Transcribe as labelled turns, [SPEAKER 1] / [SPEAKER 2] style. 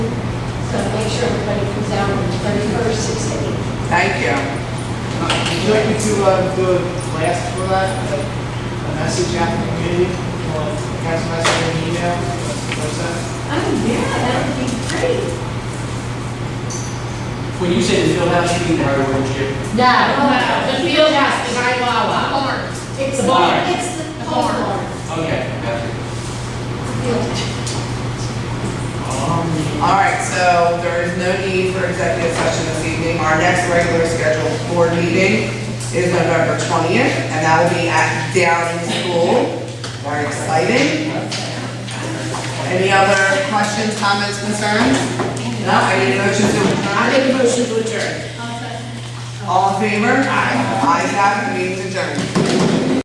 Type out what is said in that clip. [SPEAKER 1] So make sure everybody comes out on the thirty-first, six to eight.
[SPEAKER 2] Thank you.
[SPEAKER 3] Would you like me to uh, do a blast for that, like a message out to the community, or a text message, an email, or something?
[SPEAKER 1] Oh, yeah, that would be great.
[SPEAKER 4] When you say the field house, you mean the hardware and shit?
[SPEAKER 1] No.
[SPEAKER 5] Uh, The field house, the high Wawa.
[SPEAKER 1] It's
[SPEAKER 4] The
[SPEAKER 1] the,
[SPEAKER 4] bar.
[SPEAKER 1] it's the bar.
[SPEAKER 4] Okay, gotcha. Um,
[SPEAKER 2] All right, so there is no need for executive session this evening. Our next regular scheduled board meeting is November 20th, and that will be at Downing School. Very exciting. Any other questions, comments, concerns? No, I need a motion to adjourn. I need a motion to adjourn. All in favor? Aye. Ayes have it, meeting adjourned.